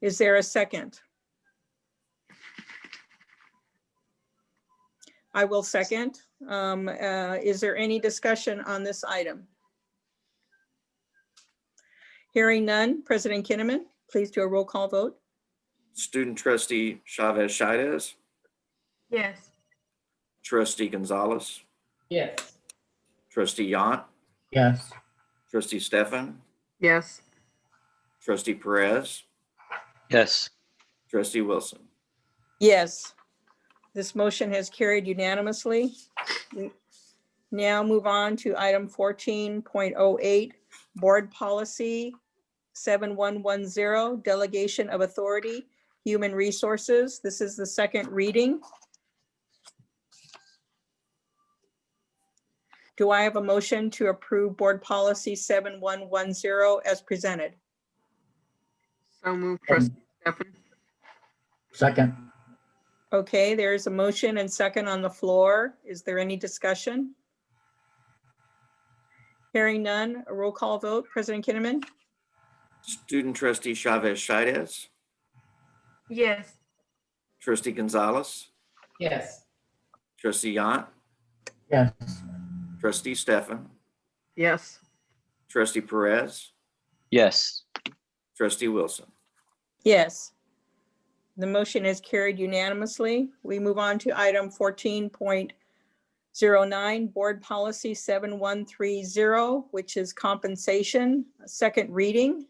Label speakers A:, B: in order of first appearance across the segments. A: Is there a second? I will second. Um, uh, Is there any discussion on this item? Hearing none. President Kinnaman, please do a roll call vote.
B: Student trustee Chavez Shides,
C: Yes.
B: trustee Gonzalez,
D: Yes.
B: trustee Yant,
D: Yes.
B: trustee Stefan,
C: Yes.
B: trustee Perez,
E: yes,
B: trustee Wilson.
A: Yes. This motion has carried unanimously. We Now move on to item fourteen point oh eight, Board Policy seven one one zero, Delegation of Authority, Human Resources. This is the second reading. Do I have a motion to approve Board Policy seven one one zero as presented?
C: So moved, trustee Stefan.
D: Second.
A: Okay, there is a motion and second on the floor. Is there any discussion? Hearing none, a roll call vote. President Kinnaman,
B: Student trustee Chavez Shides,
C: Yes.
B: trustee Gonzalez,
D: Yes.
B: trustee Yant,
D: Yes.
B: trustee Stefan,
C: Yes.
B: trustee Perez,
E: yes,
B: trustee Wilson.
A: Yes. The motion is carried unanimously. We move on to item fourteen point zero nine, Board Policy seven one three zero, which is compensation, second reading.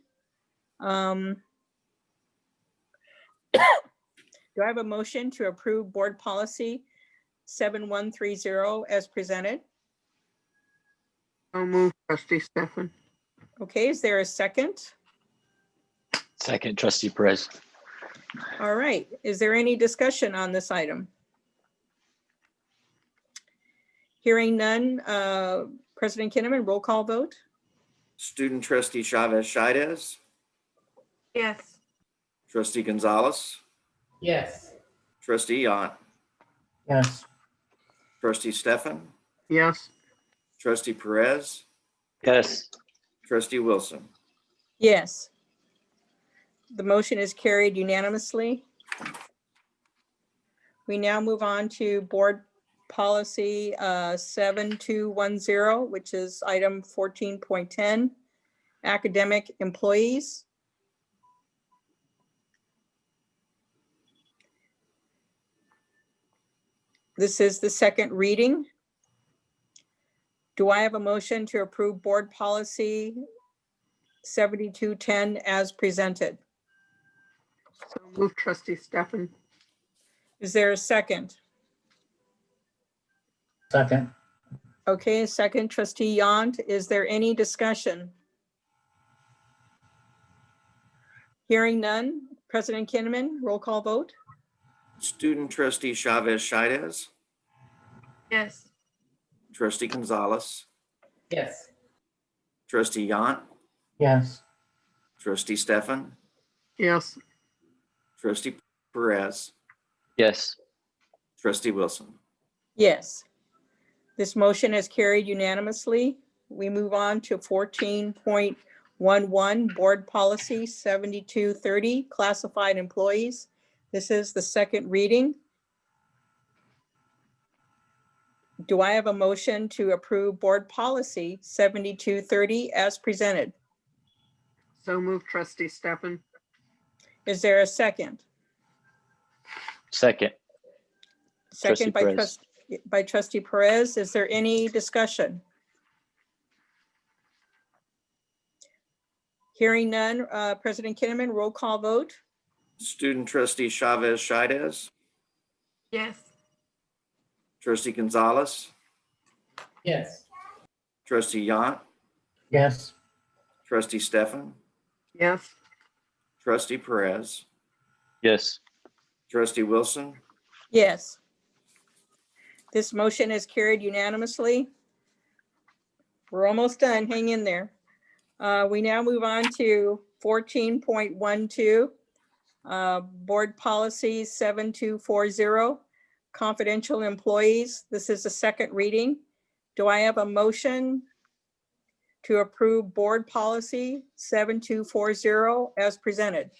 A: Um, Do I have a motion to approve Board Policy seven one three zero as presented?
C: So moved, trustee Stefan.
A: Okay, is there a second?
E: second trustee Perez,
A: All right, is there any discussion on this item? Hearing none, uh, President Kinnaman, roll call vote?
B: Student trustee Chavez Shides,
C: Yes.
B: trustee Gonzalez,
D: Yes.
B: trustee Yant,
D: Yes.
B: trustee Stefan,
C: Yes.
B: trustee Perez,
E: yes,
B: trustee Wilson.
A: Yes. The motion is carried unanimously. We now move on to Board Policy uh, 7210, which is item 14.10, Academic Employees. This is the second reading. Do I have a motion to approve Board Policy 7210 as presented.
C: So moved, trustee Stefan.
A: Is there a second?
D: Second.
A: Okay, a second trustee Yant. Is there any discussion? Hearing none. President Kinnaman, roll call vote.
B: Student trustee Chavez Shides,
C: Yes.
B: trustee Gonzalez,
D: Yes.
B: trustee Yant,
D: Yes.
B: trustee Stefan,
C: Yes.
B: trustee Perez,
E: yes,
B: trustee Wilson.
A: Yes. This motion is carried unanimously. We move on to 14.11, Board Policy 7230, Classified Employees. This is the second reading. Do I have a motion to approve Board Policy 7230 as presented?
C: So moved, trustee Stefan.
A: Is there a second?
E: second, Trustee
A: Second by
E: Perez.
A: trustee, by trustee Perez. Is there any discussion? Hearing none, uh, President Kinnaman, roll call vote.
B: Student trustee Chavez Shides,
C: Yes.
B: trustee Gonzalez,
D: Yes.
B: trustee Yant,
D: Yes.
B: trustee Stefan,
C: Yes.
B: trustee Perez,
E: yes,
B: trustee Wilson,
A: Yes. This motion is carried unanimously. We're almost done. Hang in there. Uh, We now move on to 14.12, uh, Board Policy 7240, Confidential Employees. This is the second reading. Do I have a motion to approve Board Policy 7240 as presented?